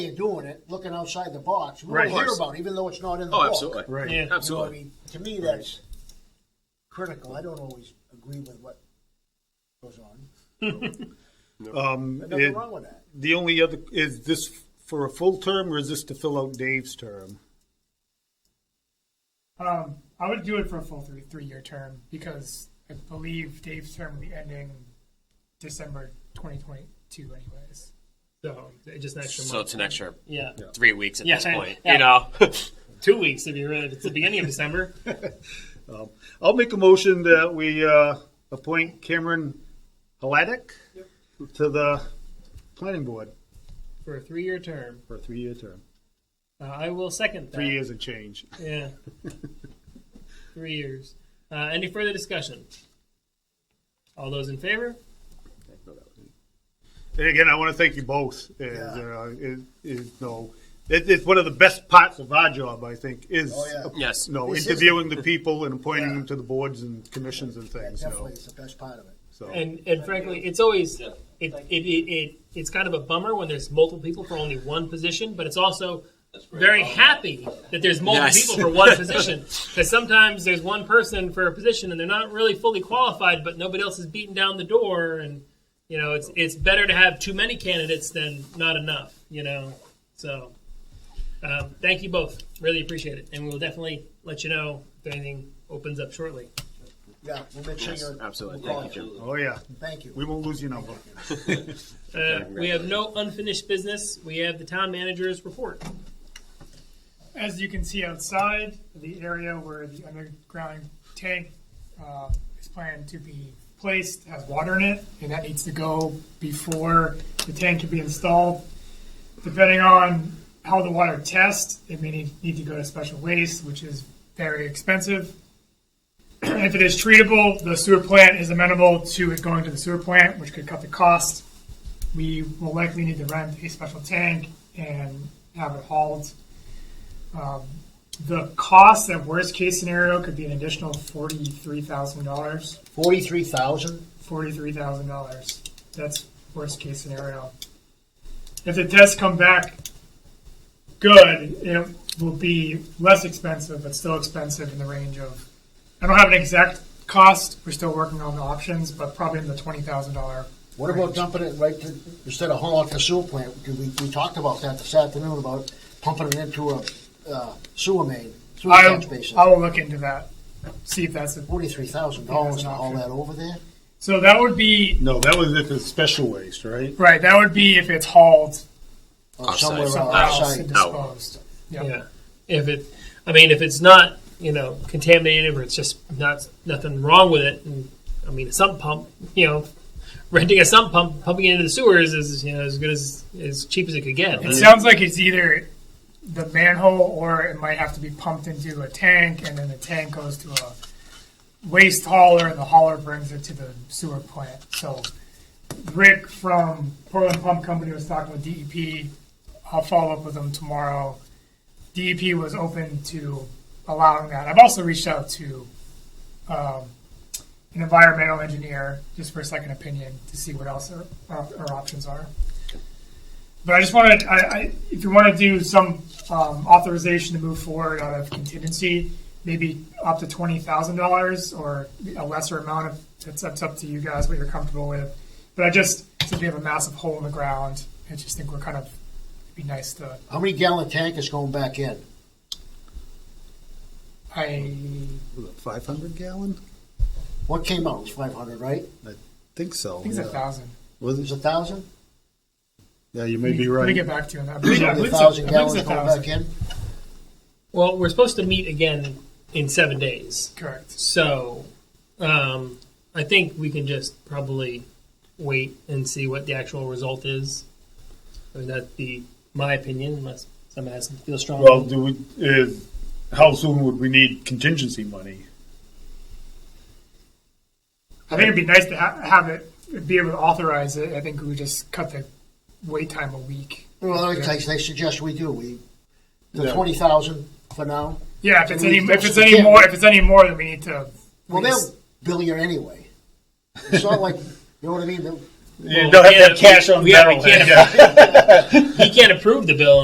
you're doing it, looking outside the box, we Right. will hear Of course. about it, even though it's not in the Oh, book. absolutely. Right. You know, Absolutely. I mean, to me, that's critical. I don't always agree with what goes on. Um, There's it- nothing wrong with that. the only other, is this for a full term or is this to fill out Dave's term? Um, I would do it for a full three three year term because I believe Dave's term will be ending December 2022, anyways. So just an extra month. So it's an extra yeah. three weeks at Yeah, this I- point. yeah. You know, Two weeks if you're if it's the beginning of December. Um, I'll make a motion that we uh, appoint Cameron Haladic to the planning board for a three year term. for a three-year term. Uh, I will second that. Three years and change. Yeah. three years. Uh, any further discussion? All those in favor? And again, I want to thank you both. Is, uh, is, is, no, it, it's one of the best parts of our job, I think, is Oh, yeah. Yes. no This is- interviewing the people and appointing Yeah. them to the boards and commissions and That things. you know, definitely is the best part of it. so. And and frankly, it's always it, it, it, it it's kind of a bummer when there's multiple people for only one position, but it's also very happy that there's multiple Yes. people for one position because sometimes there's one person for a position and they're not really fully qualified, but nobody else is beating down the door, and you know it's it's better to have too many candidates than not enough, you know. So um, thank you both, really appreciate it, and we'll definitely let you know if anything opens up shortly. Yeah, we'll make sure Yes, you're. absolutely. we'll call Thank you, oh yeah, Thank you. we won't lose your number. Uh, we have no unfinished business. We have the town manager's report. As you can see outside, the area where the underground tank uh, is planned to be placed has water in it, and that needs to go before the tank can be installed. Depending on how the water tests, it may need, need to go to special waste, which is very expensive. if it is treatable, the sewer plant is amenable to it going to the sewer plant, which could cut the cost. We will likely need to rent a special tank and have it hauled the cost at worst case scenario could be an additional forty-three thousand dollars. Forty-three thousand? Forty-three thousand dollars. That's worst case scenario. If the tests come back good, it will be less expensive, but still expensive in the range of. I don't have an exact cost. We're still working on the options, but probably in the twenty thousand dollar. What about dumping it right to, instead of hauling it to sewer plant? Because we, we talked about that this afternoon, about pumping it into a uh, sewer main, sewer I, catch basin. I will look into that. See if that's a, Forty-three thousand dollars to haul that over there? so. That would be No, that was if it's special waste, right? right. That would be if it's hauled Or Offsite. somewhere else. Somewhere else. house outside. and Out. disposed. Yep. Yeah. If it, I mean, if it's not, you know, contaminated or it's just not nothing wrong with it, and, I mean, a sump pump, you know, renting a sump pump, pumping it into the sewers is you know as good as as cheap as it could get. It sounds like it's either the manhole or it might have to be pumped into a tank and then the tank goes to a waste hauler and the hauler brings it to the sewer plant. So Rick from Portland Pump Company was talking with DEP. I'll follow up with them tomorrow. DEP was open to allowing that. I've also reached out to um, an environmental engineer just for a second opinion to see what else our, our, our options are. But I just wanted, I, I, if you want to do some um, authorization to move forward out of contingency, maybe up to twenty thousand dollars or a lesser amount of. It's, it's up to you guys what you're comfortable with. But I just since we have a massive hole in the ground, I just think we're kind of it'd be nice to. How many gallon tank is going back in? I Was it 500 gallon? What came out? It was five hundred, right? Think so. think it's a thousand. It was a thousand? Yeah, you may be Let me right. get back to you on that. I believe- Only I a believe it's thousand I believe gallons it's going back in? well, we're supposed to meet again in seven days, Correct. so um, I think we can just probably wait and see what the actual result is. I mean, that'd be my opinion, unless someone has feel strongly. Well, do we, is, how soon would we need contingency money? I think it'd be nice to ha- have it be able to authorize it. I think we just cut the wait time a week. Well, it takes, they suggest we do, we, the Yeah. twenty thousand for now. Yeah, if it's We any need if it's those any again. more if it's any more, then we need to. Well, we just- they'll bill you anyway. It's not like, you know what I mean? They'll- Well, You don't we have to have can't- cash on we- yeah, we barrel. can't Yeah. He can't approve the bill